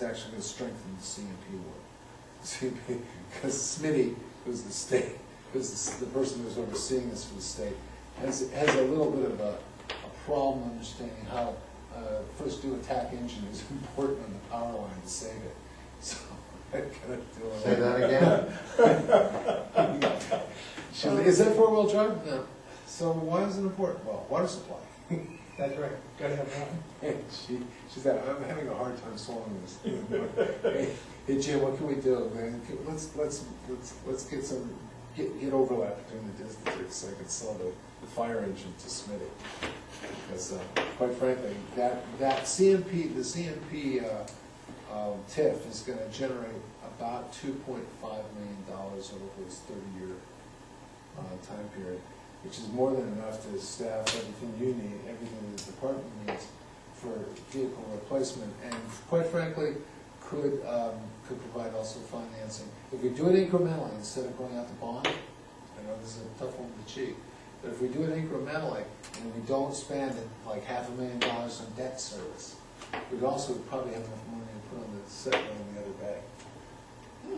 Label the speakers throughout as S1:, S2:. S1: It's actually gonna strengthen the CMP work. CMP, because Smitty, who's the state, who's the s- the person who's overseeing this for the state, has, has a little bit of a, a problem understanding how, uh, first do attack engine is important on the power line to save it. So, I gotta do it.
S2: Say that again?
S1: So, Is that four-wheel drive? No. So why is it important? Well, water supply.
S3: That's right, gotta have that.
S1: And she, she said, I'm having a hard time swallowing this. Hey, Hey Jim, what can we do, man? Can- Let's, let's, let's, let's get some, get, get overlap between the districts so I can sell the, the fire engine to Smitty. Because, uh, quite frankly, that, that CMP, the CMP, uh, um, TIF is gonna generate about two point five million dollars over his thirty-year, uh, time period, which is more than enough to staff everything you need, everything the department needs for vehicle replacement, and quite frankly, could, um, could provide also financing. If we do it incrementally, instead of going out to bond, I know this is a tough one to cheat, but if we do it incrementally, and we don't spend like half a million dollars on debt service, we'd also probably have enough money to put on the set on the other bay. We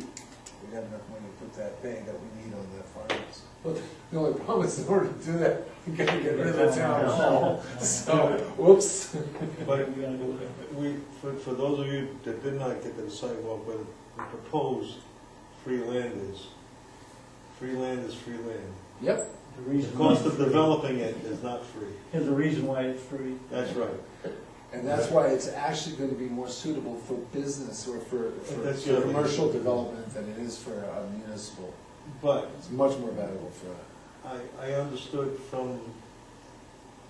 S1: got enough money to put that bay that we need on that farmhouse. But the only problem is in order to do that, we gotta get rid of the town hall, so, whoops.
S4: But we, for, for those of you that did not get to the sidewalk, where the proposed free land is, free land is free land.
S1: Yep,
S3: The
S4: The
S3: reason
S4: cost
S3: why
S4: of
S3: it's free.
S4: developing it is not free.
S3: Here's the reason why it's free.
S4: That's right.
S1: and that's why it's actually gonna be more suitable for business or for, for
S4: That's the
S1: for
S4: other-
S1: commercial development than it is for uh, municipal.
S4: But
S1: It's much more valuable for that.
S4: I, I understood from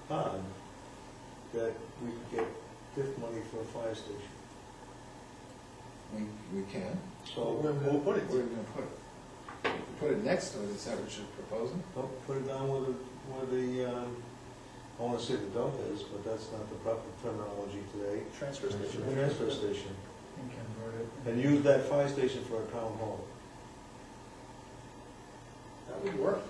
S4: Todd that we could get TIF money for a fire station.
S1: We, we can.
S4: So we'll
S5: Oh,
S4: put it,
S1: Where are we gonna put it? We Put it next to it, is that what you're proposing?
S4: Well, put it down where the, where the, um, I wanna say the dump is, but that's not the proper terminology today.
S3: Transfer
S4: The transfer station.
S3: And convert it.
S4: and use that fire station for a town hall.
S1: That would work.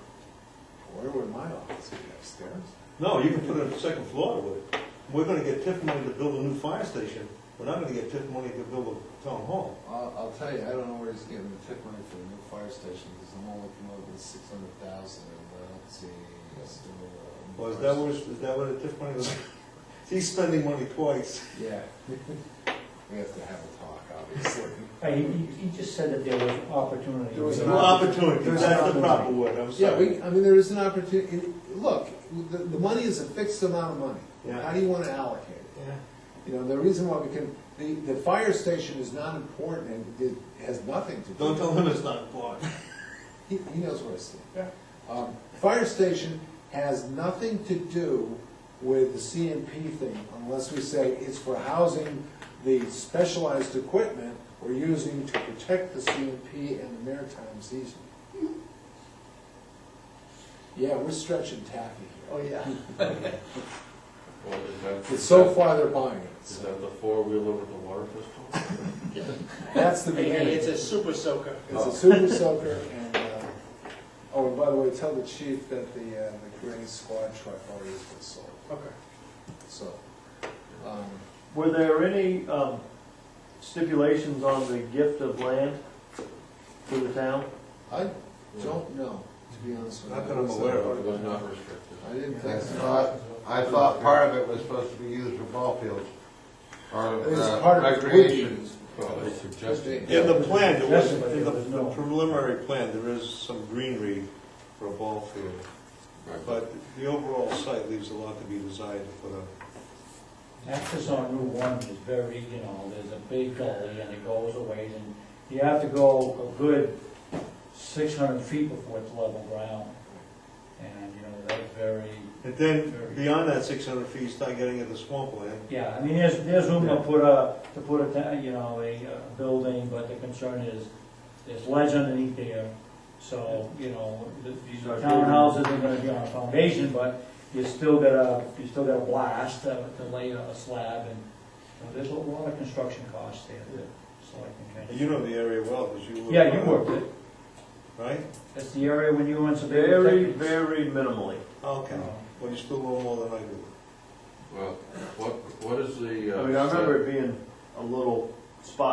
S1: Where would my office be upstairs?
S4: No, you can put it on the second floor with it. We're gonna get TIF money to build a new fire station, we're not gonna get TIF money to build a town hall.
S1: I'll, I'll tell you, I don't know where he's getting the tip money for the new fire station, because I'm only looking over the six hundred thousand, and I don't see uh, us doing. a-
S4: Or is that what, is that what the TIF money was? He's spending money twice.
S1: Yeah. We have to have a talk, obviously.
S3: Hey, He, he- he just said that there was opportunity.
S1: There was an
S4: New opportunity, that's the proper word, I'm
S1: Yeah,
S4: sorry.
S1: we, I mean, there is an opportunity, look, the, the money is a fixed amount of money.
S4: Yeah.
S1: How do you wanna allocate it?
S4: Yeah.
S1: You know, the reason why we can, the, the fire station is not important and it has nothing to do.
S4: Don't tell him it's not important.
S1: He, he knows where I stand.
S3: Yeah.
S1: Um, fire station has nothing to do with the CMP thing unless we say it's for housing the specialized equipment we're using to protect the CMP and the maritime season. Yeah, we're stretching taffy here.
S3: yeah.
S6: Well, is that-
S1: But so far, they're buying it.
S6: Is
S1: so
S6: that the four-wheeler with the water pistol?
S1: That's the beginning.
S5: It's a super soaker.
S1: It's a super soaker, and, uh, oh, and by the way, tell the chief that the, uh, the gray squad truck already has been sold,
S5: Okay.
S1: so. um,
S7: Were there any um, stipulations on the gift of land to the town?
S1: I don't know, to be honest with you.
S4: Not that I'm aware
S6: Or
S4: of.
S6: it was not restricted?
S1: I didn't
S2: I
S1: think so.
S2: thought, I thought part of it was supposed to be used for ball fields, or
S1: It was
S2: uh,
S1: part of it.
S2: recreation.
S6: Well, they suggested.
S4: In the plan, there was,
S3: Yes, but
S4: in the
S3: there's no-
S4: the preliminary plan, there is some greenery for a ball field.
S6: Right, but
S4: But the overall site leaves a lot to be desired for the
S3: Access on Route One is very, you know, there's a big gully and it goes a ways and you have to go a good six hundred feet before it's level ground. And, you know, that's very,
S4: And then, beyond that six hundred feet, you start getting into swampland.
S3: yeah, I mean, there's, there's room to put a, to put a, ta- you know, a uh, building, but the concern is, there's ledge underneath there. So, you know, th- these are townhouses, they're gonna be on a foundation, but you still gotta, you still gotta blast uh, to lay a slab and, you know, there's a lot of construction costs there, that- so I can
S4: And
S3: kind of.
S4: You know the area well, because you were.
S3: Yeah, you worked it,
S4: Right?
S3: that's the area when you went to.
S7: Very, very minimally.
S4: Okay.
S3: Uh-huh.
S4: Well, you still know more than I do.
S6: Well, what, what is the?
S7: I
S6: uh,
S7: mean, I
S6: set-
S7: remember it being a little spot